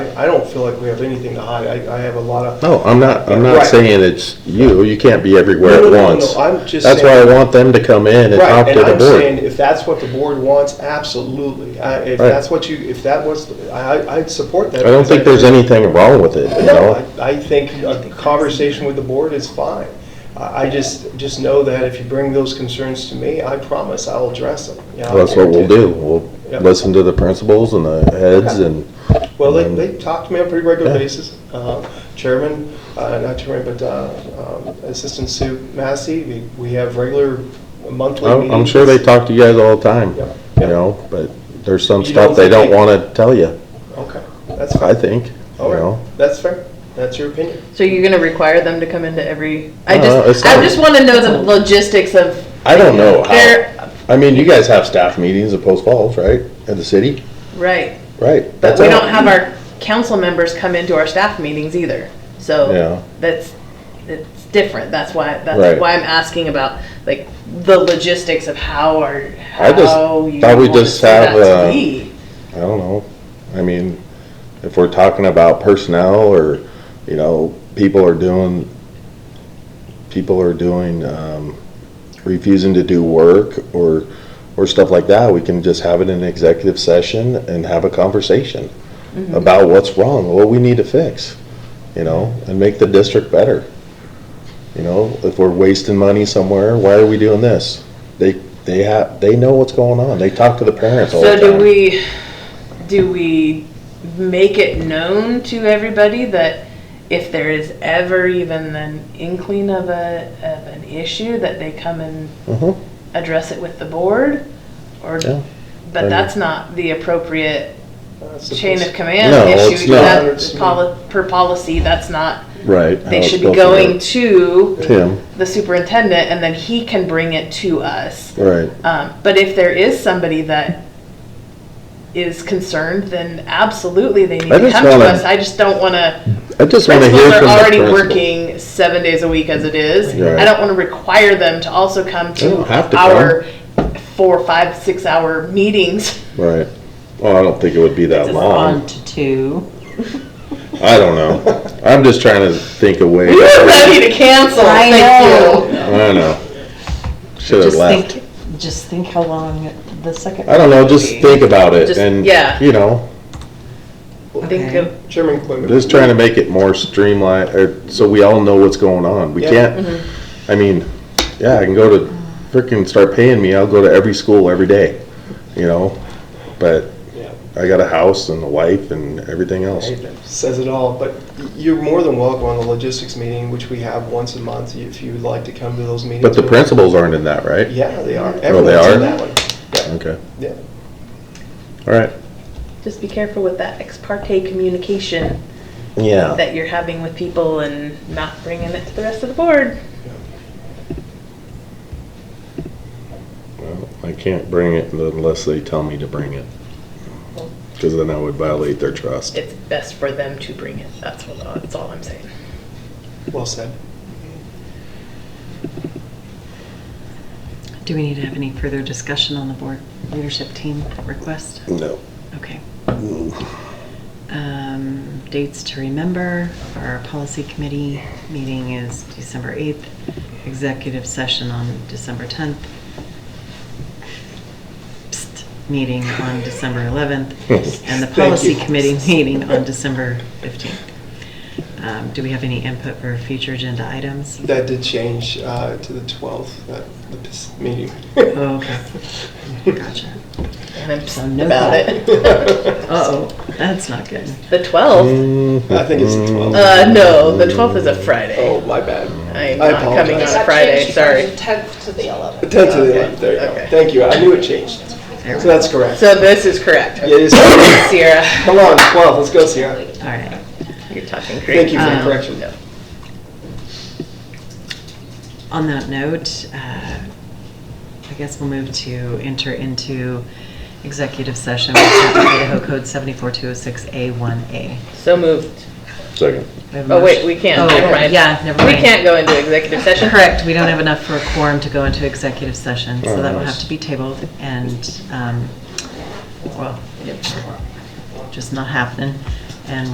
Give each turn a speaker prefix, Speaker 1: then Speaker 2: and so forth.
Speaker 1: I, I don't feel like we have anything to hide. I, I have a lot of.
Speaker 2: No, I'm not, I'm
Speaker 1: Right.
Speaker 2: not saying it's you, you can't be everywhere
Speaker 1: No,
Speaker 2: at
Speaker 1: no, no, no,
Speaker 2: once.
Speaker 1: I'm just
Speaker 2: That's why I
Speaker 1: saying-
Speaker 2: want them to come in and talk
Speaker 1: Right,
Speaker 2: to
Speaker 1: and
Speaker 2: the
Speaker 1: I'm saying,
Speaker 2: board.
Speaker 1: if that's what the board wants, absolutely. I- If
Speaker 2: Right.
Speaker 1: that's what you, if that was, I, I'd support that.
Speaker 2: I don't think there's anything wrong with it, you
Speaker 1: No,
Speaker 2: know?
Speaker 1: I I think a conversation with the board is fine. I I just, just know that if you bring those concerns to me, I promise I'll address them. you know, I
Speaker 2: That's what we'll
Speaker 1: guarantee it.
Speaker 2: do.
Speaker 1: Yeah.
Speaker 2: We'll listen to the principals and the heads and,
Speaker 1: Well, they,
Speaker 2: And
Speaker 1: they talk to me on a pretty regular
Speaker 2: Um, Yeah.
Speaker 1: basis. Uh, Chairman, uh, not chairman, but uh, um, Assistant Sue Massey, we- we have regular monthly
Speaker 2: Oh, I'm
Speaker 1: meetings.
Speaker 2: I'm sure they talk to you guys all the time,
Speaker 1: Yeah.
Speaker 2: you know? But there's some
Speaker 1: You
Speaker 2: stuff
Speaker 1: don't
Speaker 2: they
Speaker 1: think
Speaker 2: don't
Speaker 1: they-
Speaker 2: want to tell you,
Speaker 1: Okay, that's
Speaker 2: I
Speaker 1: fine.
Speaker 2: think, you
Speaker 1: All
Speaker 2: know?
Speaker 1: right, that's fair. That's your opinion.
Speaker 3: So you're gonna require them to come into every, I
Speaker 2: No, no, Uh, it's
Speaker 3: just, I
Speaker 2: not-
Speaker 3: just wanna know the logistics of.
Speaker 2: I don't know
Speaker 3: They're-
Speaker 2: how, I mean, you guys have staff meetings at Post Falls, right? At the city,
Speaker 3: Right,
Speaker 2: right?
Speaker 3: but
Speaker 2: That's
Speaker 3: we
Speaker 2: how-
Speaker 3: don't have our council members come into our staff meetings either,
Speaker 2: Yeah.
Speaker 3: so that's, it's different, that's why,
Speaker 2: Right.
Speaker 3: that's why I'm asking about, like, the logistics of how our,
Speaker 2: I just
Speaker 3: how you
Speaker 2: thought we
Speaker 3: want to
Speaker 2: just
Speaker 3: set
Speaker 2: have,
Speaker 3: that
Speaker 2: uh,
Speaker 3: to be.
Speaker 2: I don't know. I mean, if we're talking about personnel or, you know, people are doing, people are doing, um, refusing to do work or, or stuff like that, we can just have it in an executive session and have a conversation
Speaker 3: Mm-hmm.
Speaker 2: about what's wrong, what we need to fix, you know, and make the district better. You know, if we're wasting money somewhere, why are we doing this? They, they have, they know what's going on. They talk to the parents all the
Speaker 3: So
Speaker 2: time.
Speaker 3: do we, do we make it known to everybody that if there is ever even an inkling of a, of an issue, that they come and
Speaker 2: Mhm.
Speaker 3: address it with the board? Or,
Speaker 2: Yeah.
Speaker 3: but that's not the appropriate
Speaker 1: That's the
Speaker 3: chain of
Speaker 1: place.
Speaker 3: command
Speaker 2: No, it's
Speaker 3: issue.
Speaker 2: not.
Speaker 3: That, poli- per policy, that's not,
Speaker 2: Right.
Speaker 3: they should be going to
Speaker 2: Tim,
Speaker 3: the superintendent and then he can bring it to us.
Speaker 2: right.
Speaker 3: Um, but if there is somebody that is concerned, then absolutely they need
Speaker 2: I
Speaker 3: to
Speaker 2: just
Speaker 3: come to
Speaker 2: wanna-
Speaker 3: us. I just don't want to.
Speaker 2: I just want to hear
Speaker 3: Principals
Speaker 2: from
Speaker 3: are
Speaker 2: the
Speaker 3: already
Speaker 2: principal.
Speaker 3: working seven days a week as it is.
Speaker 2: Right.
Speaker 3: I don't want to require them to also come
Speaker 2: They don't
Speaker 3: to
Speaker 2: have to
Speaker 3: our four, five, six-hour meetings.
Speaker 2: Right. Well, I don't think it would be that
Speaker 3: It's
Speaker 2: long.
Speaker 4: on to two.
Speaker 2: I don't know. I'm just trying to think of ways.
Speaker 3: We are
Speaker 2: I
Speaker 3: ready to cancel.
Speaker 4: I
Speaker 3: Thank you.
Speaker 2: know. Should have
Speaker 4: Just
Speaker 2: left.
Speaker 4: think, just think how long the second.
Speaker 2: I don't know, just think about it
Speaker 3: Just-
Speaker 2: and,
Speaker 3: yeah.
Speaker 2: you know,
Speaker 3: Think of
Speaker 1: Chairman Quimby.
Speaker 2: just trying to make it more streamlined, or, so we all know what's going on. We
Speaker 1: Yeah.
Speaker 2: can't, I mean, yeah, I can go to, frickin' start paying me, I'll go to every school every day, you know? But
Speaker 1: Yeah.
Speaker 2: I got a house and a wife and everything else.
Speaker 1: Hey, that Says it all, but you're more than welcome on the logistics meeting, which we have once a month, if you would like to come to those meetings.
Speaker 2: But the principals aren't in that, right?
Speaker 1: Yeah, they are.
Speaker 2: Oh, they
Speaker 1: Everyone's in
Speaker 2: are?
Speaker 1: that one. Yeah,
Speaker 2: Okay,
Speaker 1: yeah.
Speaker 2: all right.
Speaker 3: just be careful with that ex parte communication
Speaker 2: Yeah.
Speaker 3: that you're having with people and not bringing it to the rest of the board.
Speaker 2: I can't bring it unless they tell me to bring it. Because then I would violate their trust.
Speaker 3: it's best for them to bring it. That's what, that's all I'm saying.
Speaker 1: Well said.
Speaker 4: Do we need to have any further discussion on the board leadership team request?
Speaker 2: No.
Speaker 4: Okay.
Speaker 2: Mm.
Speaker 4: Um, Dates to remember, for our policy committee meeting is December 8th, executive session on December 10th, Psst, meeting on December 11th, and the
Speaker 1: Thank
Speaker 4: policy
Speaker 1: you.
Speaker 4: committee meeting on December 15th. Um, Do we have any input for future agenda items?
Speaker 1: That did change uh, to the 12th, that, the pis- meeting.
Speaker 4: Oh, okay. Gotcha.
Speaker 3: And I'm pissed
Speaker 4: So no
Speaker 3: about
Speaker 4: comment.
Speaker 3: it.
Speaker 4: Oh, Uh-oh, that's not good.
Speaker 3: The 12th?
Speaker 1: I think it's the 12th.
Speaker 3: Uh, no, the 12th is a Friday.
Speaker 1: Oh, my bad.
Speaker 3: I am
Speaker 1: I
Speaker 3: not coming on
Speaker 1: apologize.
Speaker 3: a Friday, sorry.
Speaker 5: Tenth to the eleventh.
Speaker 1: 10 to the 11th, there you
Speaker 3: Okay.
Speaker 1: go. Thank you, I knew it changed.
Speaker 4: There we
Speaker 1: So
Speaker 4: go.
Speaker 1: that's correct.
Speaker 3: So this is correct.
Speaker 1: Yeah, it is.
Speaker 3: Sierra,
Speaker 1: Come on, 12, let's go, Sierra.
Speaker 4: All right.
Speaker 3: you're talking
Speaker 1: Thank
Speaker 3: crazy.
Speaker 1: you for the
Speaker 4: Um,
Speaker 1: correction.
Speaker 4: On that note, uh, I guess we'll move to enter into executive session with Idaho Code 74206A1A.
Speaker 3: So moved.
Speaker 2: Second.
Speaker 4: We have a
Speaker 3: Oh, wait,
Speaker 4: motion-
Speaker 3: we
Speaker 4: Oh,
Speaker 3: can't, never mind.
Speaker 4: Yeah, never
Speaker 3: We
Speaker 4: mind.
Speaker 3: can't go into executive session.
Speaker 4: Correct, we don't have enough for a quorum to go into executive session, so
Speaker 2: Oh,
Speaker 4: that will
Speaker 2: nice.
Speaker 4: have to be tabled and, um, well, just not happening. And